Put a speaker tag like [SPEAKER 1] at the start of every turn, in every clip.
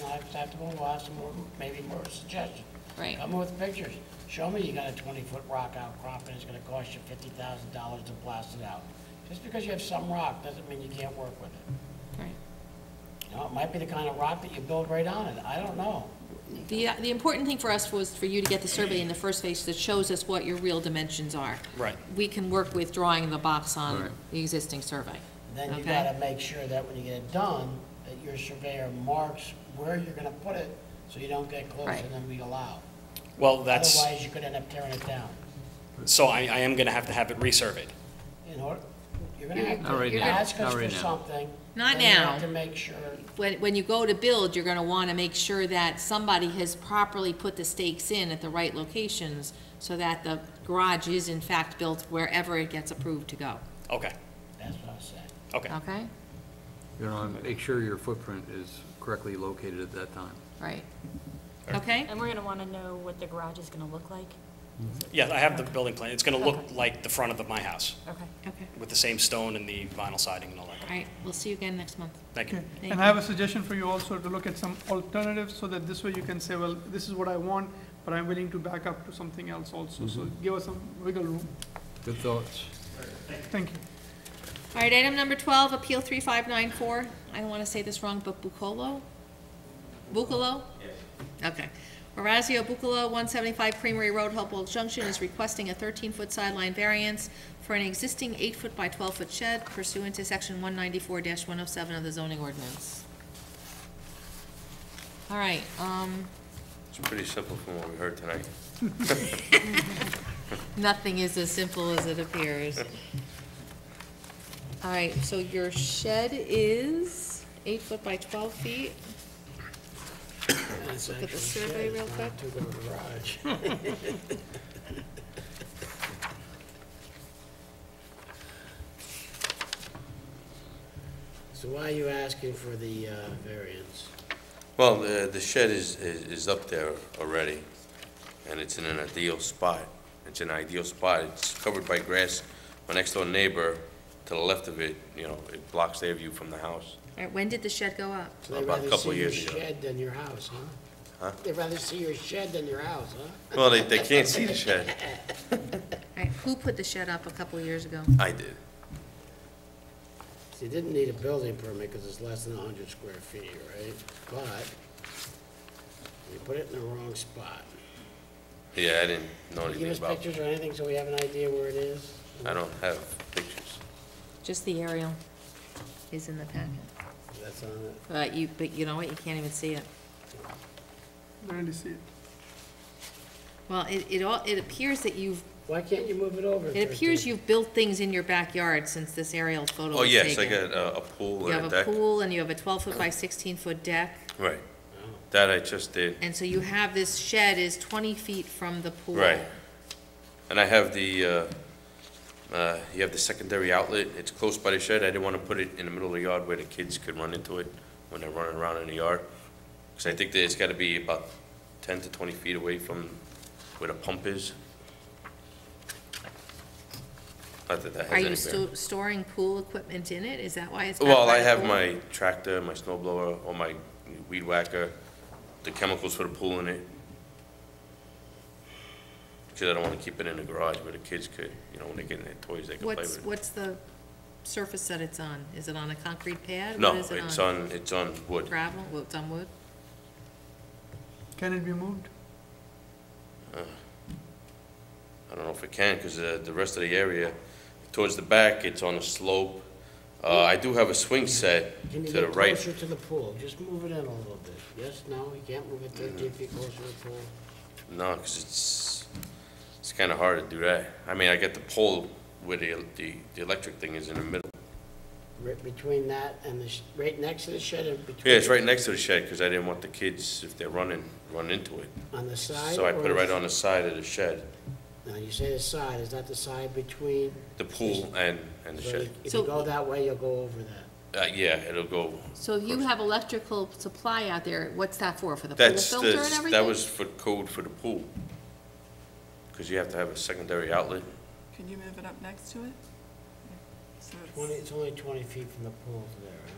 [SPEAKER 1] not acceptable, we'll have some more, maybe more suggestions.
[SPEAKER 2] Right.
[SPEAKER 1] Come with pictures. Show me you got a twenty-foot rock outcropping, it's gonna cost you fifty thousand dollars to blast it out. Just because you have some rock doesn't mean you can't work with it.
[SPEAKER 2] Right.
[SPEAKER 1] You know, it might be the kind of rock that you build right on it, I don't know.
[SPEAKER 2] The, uh, the important thing for us was for you to get the survey in the first phase that shows us what your real dimensions are.
[SPEAKER 1] Right.
[SPEAKER 2] We can work with drawing the box on
[SPEAKER 3] Right.
[SPEAKER 2] the existing survey.
[SPEAKER 1] Then you
[SPEAKER 2] Okay.
[SPEAKER 1] gotta make sure that when you get it done, that your surveyor marks where you're gonna put it, so you don't get closer
[SPEAKER 2] Right.
[SPEAKER 1] than we allow.
[SPEAKER 4] Well, that's,
[SPEAKER 1] Otherwise, you could end up tearing it down.
[SPEAKER 4] so I, I am gonna have to have it resurveyed.
[SPEAKER 1] In order, you're gonna have
[SPEAKER 3] Not right
[SPEAKER 1] to
[SPEAKER 3] now,
[SPEAKER 1] ask
[SPEAKER 3] not
[SPEAKER 1] us for
[SPEAKER 3] right now.
[SPEAKER 1] something.
[SPEAKER 2] Not
[SPEAKER 1] then you have
[SPEAKER 2] now.
[SPEAKER 1] To make sure,
[SPEAKER 2] When, when you go to build, you're gonna wanna make sure that somebody has properly put the stakes in at the right locations so that the garage is in fact built wherever it gets approved to go,
[SPEAKER 4] Okay,
[SPEAKER 1] that's what I was saying.
[SPEAKER 4] okay.
[SPEAKER 2] okay?
[SPEAKER 3] You know, and make sure your footprint is correctly located at that time.
[SPEAKER 2] Right. Okay?
[SPEAKER 5] And we're gonna wanna know what the garage is gonna look like?
[SPEAKER 4] Yeah, I have the building plan. It's gonna look like the front of my house,
[SPEAKER 5] Okay.
[SPEAKER 2] Okay.
[SPEAKER 4] with the same stone and the vinyl siding and all that.
[SPEAKER 2] All right, we'll see you again next month.
[SPEAKER 4] Thank you.
[SPEAKER 2] Thank
[SPEAKER 6] And I have a suggestion for you also to look at some alternatives, so that this way you can say, well, this is what I want, but I'm willing to back up to something else also, so give us some wiggle room.
[SPEAKER 3] Good thoughts.
[SPEAKER 6] Thank you.
[SPEAKER 2] All right, item number twelve, Appeal three five nine four, I don't wanna say this wrong, but Bucolo? Bucolo? Yes. Okay. Orazio Bucolo, one seventy-five Creamery Road, Hopewell Junction, is requesting a thirteen-foot sideline variance for an existing eight-foot by twelve-foot shed pursuant to section one ninety-four one oh seven of the zoning ordinance. All right, um,
[SPEAKER 7] It's pretty simple from what we heard tonight.
[SPEAKER 2] nothing is as simple as it appears. All right, so your shed is eight foot by twelve feet?
[SPEAKER 1] Let's
[SPEAKER 2] look at the survey real quick.
[SPEAKER 1] Two-door garage. So why are you asking for the uh, variance?
[SPEAKER 7] Well, the the shed is, is is up there already, and it's in an ideal spot. It's an ideal spot. It's covered by grass. My next door neighbor, to the left of it, you know, it blocks their view from the house.
[SPEAKER 2] All right, when did the shed go up?
[SPEAKER 1] So they'd
[SPEAKER 7] About a
[SPEAKER 1] rather
[SPEAKER 7] couple
[SPEAKER 1] see your
[SPEAKER 7] years ago.
[SPEAKER 1] shed than your house, huh?
[SPEAKER 7] Huh?
[SPEAKER 1] They'd rather see your shed than your house, huh?
[SPEAKER 7] Well, they, they can't see the shed.
[SPEAKER 2] All right, who put the shed up a couple of years ago?
[SPEAKER 7] I did.
[SPEAKER 1] So you didn't need a building permit because it's less than 100 square feet, right? But you put it in the wrong spot.
[SPEAKER 7] Yeah, I didn't know
[SPEAKER 1] Can you give
[SPEAKER 7] anything
[SPEAKER 1] us
[SPEAKER 7] about
[SPEAKER 1] pictures
[SPEAKER 7] it.
[SPEAKER 1] or anything so we have an idea where it is?
[SPEAKER 7] I don't have pictures.
[SPEAKER 2] Just the aerial is in the packet.
[SPEAKER 1] That's on it.
[SPEAKER 2] But you, but you know what, you can't even see it.
[SPEAKER 6] Really see it.
[SPEAKER 2] Well, it, it all, it appears that you've,
[SPEAKER 1] Why can't you move it over?
[SPEAKER 2] it appears
[SPEAKER 1] 13?
[SPEAKER 2] you've built things in your backyard since this aerial photo
[SPEAKER 7] Oh,
[SPEAKER 2] was taken.
[SPEAKER 7] yes, I got uh, a pool
[SPEAKER 2] You
[SPEAKER 7] and a
[SPEAKER 2] have a
[SPEAKER 7] deck.
[SPEAKER 2] pool and you have a twelve foot by sixteen foot deck,
[SPEAKER 7] Right. That I just did.
[SPEAKER 2] and so you have this shed is twenty feet from the pool.
[SPEAKER 7] Right. And I have the, uh, uh, you have the secondary outlet, it's close by the shed, I didn't want to put it in the middle of the yard where the kids could run into it when they're running around in the yard. Because I think that it's got to be about 10 to 20 feet away from where the pump is. Not that that
[SPEAKER 2] Are
[SPEAKER 7] has
[SPEAKER 2] you
[SPEAKER 7] any bearing.
[SPEAKER 2] sto- storing pool equipment in it? Is that why it's? got
[SPEAKER 7] Well,
[SPEAKER 2] by
[SPEAKER 7] I
[SPEAKER 2] the
[SPEAKER 7] have
[SPEAKER 2] pool?
[SPEAKER 7] my tractor, my snow blower, or my weed whacker, the chemicals for the pool in it. Because I don't want to keep it in the garage where the kids could, you know, when they get in their toys, they can play
[SPEAKER 2] What's,
[SPEAKER 7] with it.
[SPEAKER 2] what's the surface that it's on? Is it on a concrete pad?
[SPEAKER 7] No,
[SPEAKER 2] What is it
[SPEAKER 7] it's on, it's on wood.
[SPEAKER 2] Gravel, well, it's on wood?
[SPEAKER 6] Can it be moved?
[SPEAKER 7] I don't know if it can, because the rest of the area, towards the back, it's on a slope. Uh, I do have a swing set
[SPEAKER 1] Can
[SPEAKER 7] to
[SPEAKER 1] you
[SPEAKER 7] the
[SPEAKER 1] get
[SPEAKER 7] right.
[SPEAKER 1] closer to the pool? Just move it in a little bit. Yes, no, you can't move it 13 feet closer to the pool?
[SPEAKER 7] No, because it's, it's kind of hard to do that. I mean, I get the pole where the, the the electric thing is in the middle.
[SPEAKER 1] Right between that and the, sh- right next to the shed and between?
[SPEAKER 7] Yeah, it's right next to the shed, because I didn't want the kids, if they're running, run into it.
[SPEAKER 1] On the side?
[SPEAKER 7] So I
[SPEAKER 1] or
[SPEAKER 7] put it right on the side of the shed,
[SPEAKER 1] Now, you say the side, is that the side between?
[SPEAKER 7] the pool and, and the
[SPEAKER 1] So
[SPEAKER 7] shed.
[SPEAKER 1] If
[SPEAKER 2] So-
[SPEAKER 1] you go that way, you'll go over that.
[SPEAKER 7] Uh, yeah, it'll go,
[SPEAKER 2] So if you have electrical supply out there, what's that for? For the pool
[SPEAKER 7] that's,
[SPEAKER 2] filter and
[SPEAKER 7] the
[SPEAKER 2] everything?
[SPEAKER 7] that was for code for the pool. Because you have to have a secondary outlet.
[SPEAKER 8] Can you move it up next to it? So it's-
[SPEAKER 1] 20, it's only 20 feet from the pool to there, huh?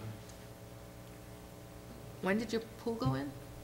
[SPEAKER 2] When did your pool go in?